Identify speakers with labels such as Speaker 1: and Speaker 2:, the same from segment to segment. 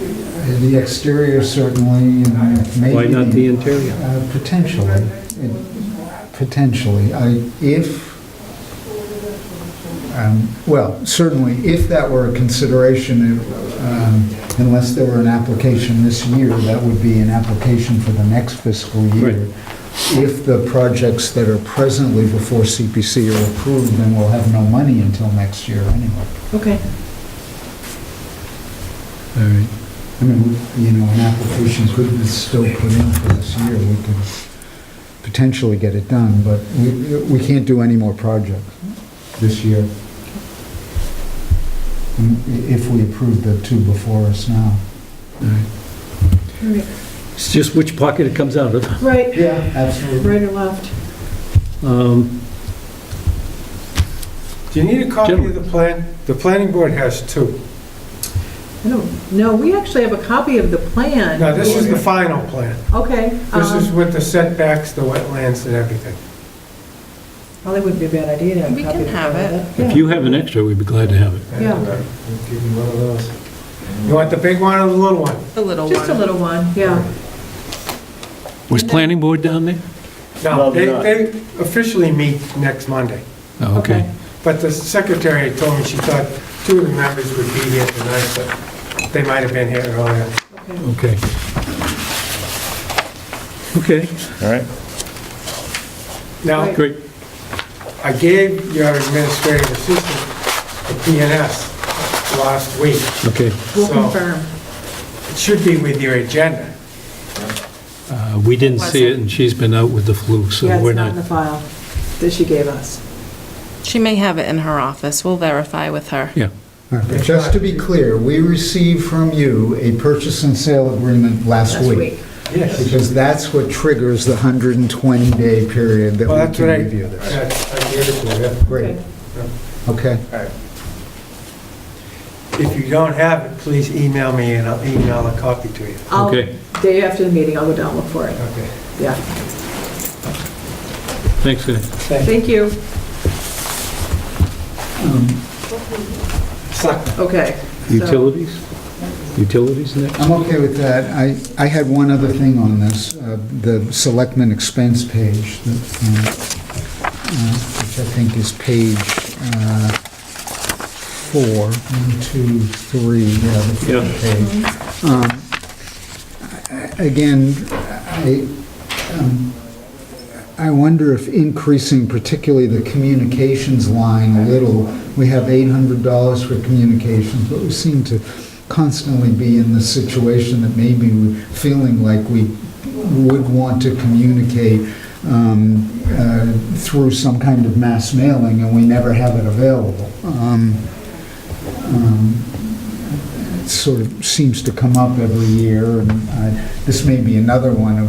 Speaker 1: The exterior certainly, and maybe...
Speaker 2: Why not the interior?
Speaker 1: Uh, Potentially, It- potentially. I, if, um, well, certainly, if that were a consideration, it, um, unless there were an application this year, that would be an application for the next fiscal year.
Speaker 2: Right.
Speaker 1: If the projects that are presently before CPC are approved, then we'll have no money until next year anyway.
Speaker 3: Okay.
Speaker 2: All right.
Speaker 1: I mean, you know, an application could be still put in for this year, we could potentially get it done, but we, we can't do any more projects this year. Mm, i- If we approve the two before us now.
Speaker 3: Right.
Speaker 2: It's just which pocket it comes out of.
Speaker 3: Right,
Speaker 1: Yeah, absolutely.
Speaker 3: right or left?
Speaker 2: Um,
Speaker 4: Do you need a copy of
Speaker 2: Gentlemen.
Speaker 4: the plan? The planning board has two.
Speaker 3: I don't, no, we actually have a copy of the plan.
Speaker 4: Now, this is the final plan.
Speaker 3: Okay.
Speaker 4: This is
Speaker 3: um,
Speaker 4: with the setbacks, the wetlands and everything.
Speaker 3: Well, that wouldn't be a bad idea to have a
Speaker 5: We
Speaker 3: copy.
Speaker 5: can
Speaker 3: of the
Speaker 5: have
Speaker 3: plan.
Speaker 5: it.
Speaker 3: Yeah.
Speaker 2: If you have an extra, we'd be glad to have it.
Speaker 3: Yeah.
Speaker 4: And, uh, we'll Give you one of those. You want the big one or the little one?
Speaker 5: The little one.
Speaker 3: Just a little one, yeah.
Speaker 2: Was planning board down there?
Speaker 4: No, they, they officially meet next Monday.
Speaker 2: Oh, okay.
Speaker 4: But the secretary told me she thought two of the members would be here tonight, but they might have been here earlier.
Speaker 2: Okay.
Speaker 3: Okay.
Speaker 2: Okay,
Speaker 6: All right.
Speaker 4: Now,
Speaker 2: great.
Speaker 4: I gave your administrative assistant a PNS last week.
Speaker 2: Okay,
Speaker 3: We'll
Speaker 4: So-
Speaker 3: confirm.
Speaker 4: It should be with your agenda.
Speaker 2: Uh, we didn't see it, and she's been out with the flu, so
Speaker 3: Yeah,
Speaker 2: we're
Speaker 3: it's not in the
Speaker 2: not...
Speaker 3: file that she gave us.
Speaker 5: She may have it in her office. We'll verify with her.
Speaker 2: Yeah,
Speaker 1: All right, but Just to be clear, we received from you a purchase and sale agreement last
Speaker 3: Last
Speaker 1: week.
Speaker 4: Yes.
Speaker 1: Because that's what triggers the 120-day period that
Speaker 4: Well,
Speaker 1: we
Speaker 4: that's
Speaker 1: can
Speaker 4: what I,
Speaker 1: review this.
Speaker 4: I I gave it to you.
Speaker 1: Great,
Speaker 3: Okay.
Speaker 1: okay.
Speaker 4: If you don't have it, please email me and I'll email a copy to you.
Speaker 3: I'll-
Speaker 2: Okay.
Speaker 3: Day after the meeting, I'll go down and look for it,
Speaker 4: Okay.
Speaker 3: yeah.
Speaker 2: thanks, Ed.
Speaker 3: Thank you.
Speaker 4: Suck.
Speaker 3: Okay. so-
Speaker 2: Utilities? Utilities next?
Speaker 1: I'm okay with that. I, I had one other thing on this, uh, the selectmen expense page, that, um, uh, which I think is page uh, four, one, two, three, yeah, the
Speaker 2: Yeah.
Speaker 1: fourth page. Um, I- I- Again, I, um, I wonder if increasing particularly the communications line a little, we have $800 for communications, but we seem to constantly be in the situation that maybe we're feeling like we would want to communicate um, uh, through some kind of mass mailing, and we never have it available. Um, um, It sort of seems to come up every year, and I- this may be another one of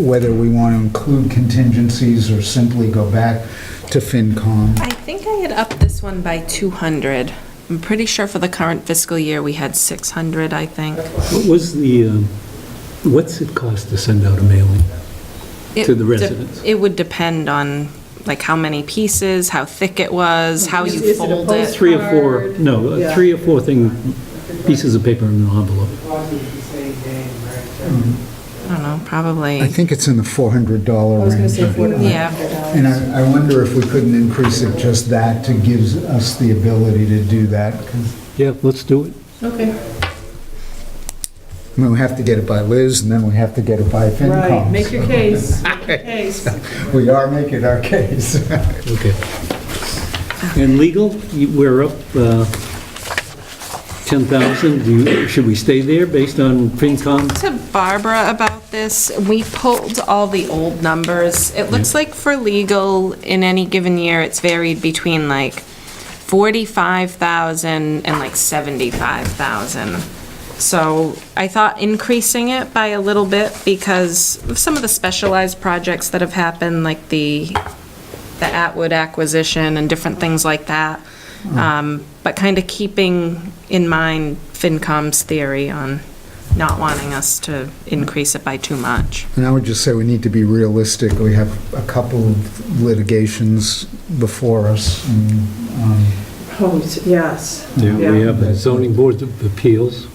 Speaker 1: whether we want to include contingencies or simply go back to FinCom.
Speaker 5: I think I had upped this one by 200. I'm pretty sure for the current fiscal year, we had 600, I think.
Speaker 2: What was the, um, what's it cost to send out a mailing?
Speaker 5: It
Speaker 2: To the
Speaker 5: de-
Speaker 2: residents.
Speaker 5: It would depend on, like, how many pieces, how thick it was, how
Speaker 3: Is-
Speaker 5: you
Speaker 3: is it a
Speaker 5: fold
Speaker 3: post-
Speaker 5: it.
Speaker 2: Three or four,
Speaker 3: Card.
Speaker 2: no,
Speaker 3: Yeah.
Speaker 2: uh, three or four thing, pieces of paper in an envelope.
Speaker 5: I don't know, probably.
Speaker 1: I think it's in the $400
Speaker 3: I
Speaker 1: range.
Speaker 3: was gonna say
Speaker 1: I
Speaker 3: four
Speaker 1: think.
Speaker 3: to
Speaker 5: Yeah.
Speaker 3: five hundred dollars.
Speaker 1: And I, I wonder if we couldn't increase it just that to gives us the ability to do that. 'cause,
Speaker 2: Yeah, let's do it.
Speaker 3: Okay.
Speaker 1: I mean, we have to get it by Liz, and then we have to get it by FinCom.
Speaker 3: Right, make your
Speaker 1: so
Speaker 3: case, make your case.
Speaker 1: We are making our case.
Speaker 2: Okay. And legal, you- we're up uh, 10,000. Do you- Should we stay there based on FinCom?
Speaker 5: to Barbara about this. We pulled all the old numbers. It looks like for legal, in any given year, it's varied between like 45,000 and like 75,000. So I thought increasing it by a little bit because of some of the specialized projects that have happened, like the the Atwood acquisition and different things like that. Um, But kind of keeping in mind FinCom's theory on not wanting us to increase it by too much.
Speaker 1: And I would just say we need to be realistic. We have a couple of litigations before us. and, um,
Speaker 3: Oh, yes.
Speaker 2: We have the zoning board of appeals.